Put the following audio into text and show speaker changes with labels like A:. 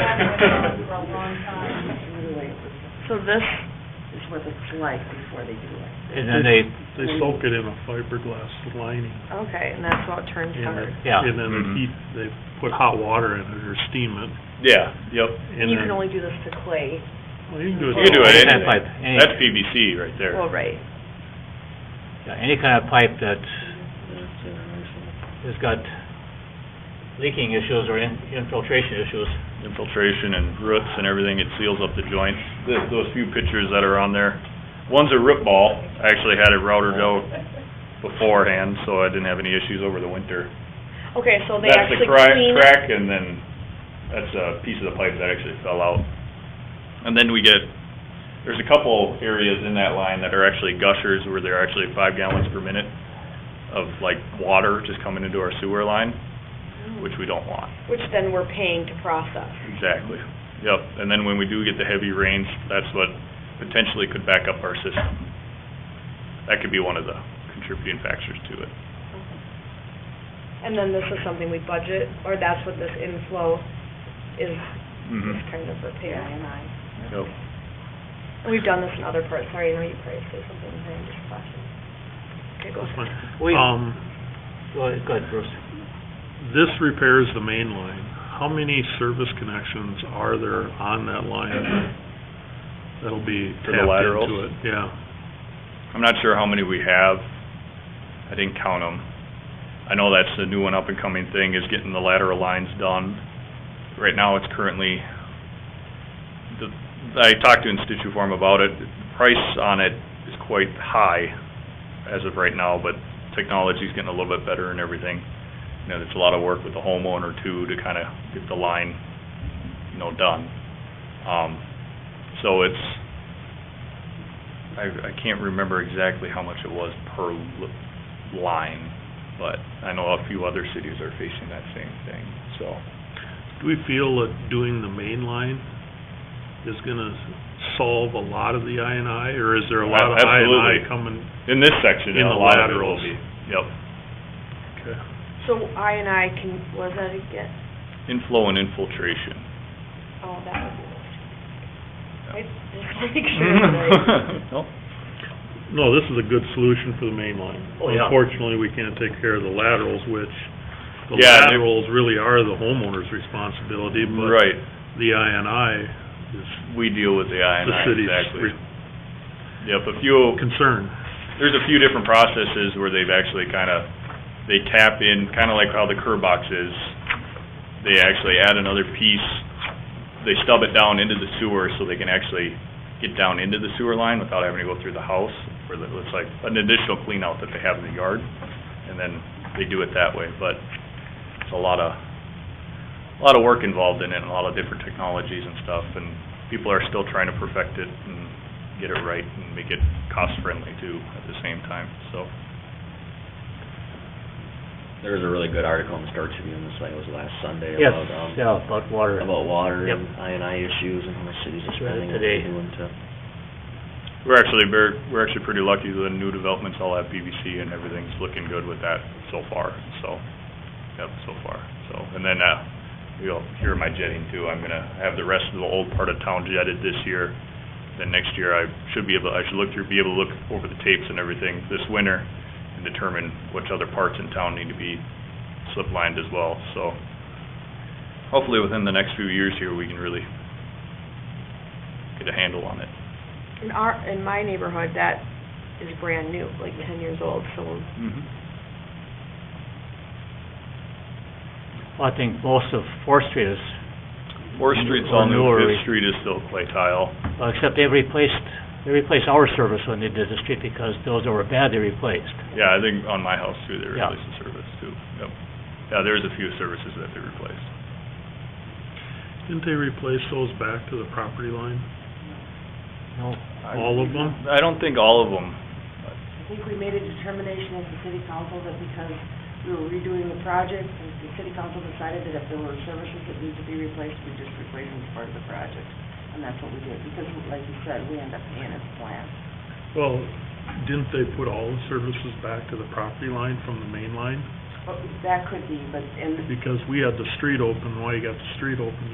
A: for a long time.
B: Anyway,
C: So this,
B: is what it's like before they do it.
D: And then they,
E: They soak it in a fiberglass lining.
C: okay, and that's what turns
E: and
C: hard.
E: then-
D: Yeah.
E: And then
D: Mhm.
F: Mm-hmm.
E: they heat, they put hot water in it or steam it.
G: Yeah, yep.
E: and
C: You can
E: then-
C: only do this to clay.
E: Well, you can do it.
G: You can do it
D: Any kind of pipe,
G: anyway.
D: any-
G: That's PVC right there.
C: Well, right.
D: yeah, any kind of pipe uh, that has got leaking issues or in- infiltration issues.
G: infiltration and roots and everything, it seals up the joints. Th- Those few pictures that are on there, one's a root ball, I actually had it routed out beforehand, so I didn't have any issues over the winter.
C: Okay, so they
G: That's the
C: actually
G: crack,
C: clean.
G: crack, and then that's a piece of the pipe that actually fell out. And then we get, there's a couple areas in that line that are actually gushers, where they're actually five gallons per minute of like water just coming into our sewer line, which we don't want.
C: Which then we're paying to process.
G: Exactly, yep, and then when we do get the heavy rains, that's what potentially could back up our system. That could be one of the contributing factors to it.
C: And then this is something we budget, or that's what this inflow is,
G: Mm-hmm.
C: is kind of
B: Yeah,
C: repair.
B: and I-
G: Yep.
C: We've done this in other parts, sorry, I know you probably say something, I'm just flashing. Okay, go ahead.
E: That's fine.
D: We-
E: Um,
D: Go ahead, go ahead, Bruce.
E: This repairs the main line. How many service connections are there on that line that'll be
G: For the
E: tapped
G: laterals?
E: into it? Yeah.
G: I'm not sure how many we have, I didn't count them. I know that's the new and up and coming thing, is getting the lateral lines done. Right now, it's currently, the, I talked to Instituform about it, The price on it is quite high as of right now, but technology's getting a little bit better and everything. You know, there's a lot of work with the homeowner too, to kinda get the line, you know, done. Um, so it's, I, I can't remember exactly how much it was per l- line, but I know a few other cities are facing that same thing, so.
E: Do we feel that doing the main line is gonna solve a lot of the I and I, or is there a lot of I and I
G: Absolutely.
E: coming?
G: In this section,
E: In
G: a
E: the
G: lot of it will
E: laterals.
G: be, yep.
E: Okay.
C: So I and I can, was that again?
G: Inflow and infiltration.
C: Oh, that would be this.
G: Yeah.
C: I just wanna make sure that I-
G: No?
E: No, this is a good solution for the main line.
D: Oh, yeah.
E: Unfortunately, we can't take care of the laterals, which, the
G: Yeah, they-
E: laterals really are the homeowner's responsibility, but
G: Right,
E: the I and I is
G: we deal with the I and
E: the
G: I,
E: city's
G: exactly.
E: re-
G: Yep, a few,
E: concern.
G: there's a few different processes where they've actually kinda, they tap in, kinda like how the curb box is. They actually add another piece, they stub it down into the sewer so they can actually get down into the sewer line without having to go through the house. Where the- it's like an additional clean out that they have in the yard, and then they do it that way, but it's a lot of, a lot of work involved in it, and a lot of different technologies and stuff, and people are still trying to perfect it and get it right and make it cost-friendly too at the same time, so.
F: There was a really good article in the Star Tribune this, I think it was last Sunday
D: Yes,
F: about, um,
D: yeah, about water.
F: about water
D: Yep.
F: and I and I issues and how much cities are
D: Read it
F: spending and
D: today.
F: doing to.
G: We're actually, very we're actually pretty lucky the new developments all have PVC and everything's looking good with that so far, so, yep, so far, so. And then, uh, you'll hear my jetting too, I'm gonna have the rest of the old part of town jetted this year. Then next year, I should be able, I should look through, be able to look over the tapes and everything this winter and determine which other parts in town need to be slip lined as well, so. Hopefully, within the next few years here, we can really get a handle on it.
C: In our, in my neighborhood, that is brand new, like ten years old, so
G: Mm-hmm.
D: Well, I think most of Fourth Street is,
G: Fourth Street's all new,
D: Or newer.
G: Fifth Street is still clay tile.
D: well, except they replaced, they replaced our service when they did the street because those that were bad, they replaced.
G: Yeah, I think on my house too, they
D: Yeah.
G: replaced the service too, yep. Yeah, there's a few services that they replaced.
E: Didn't they replace those back to the property line?
D: No,
E: All of them?
G: I don't think all of them,
B: I think we made a determination as a city council that because we were redoing the project, and the city council decided that if there were services that needed to be replaced, we just replace them as part of the project. And that's what we did, because like you said, we end up paying as planned.
E: Well, didn't they put all the services back to the property line from the main line?
B: But that could be, but, and
E: Because we had the street open, why you got the street open,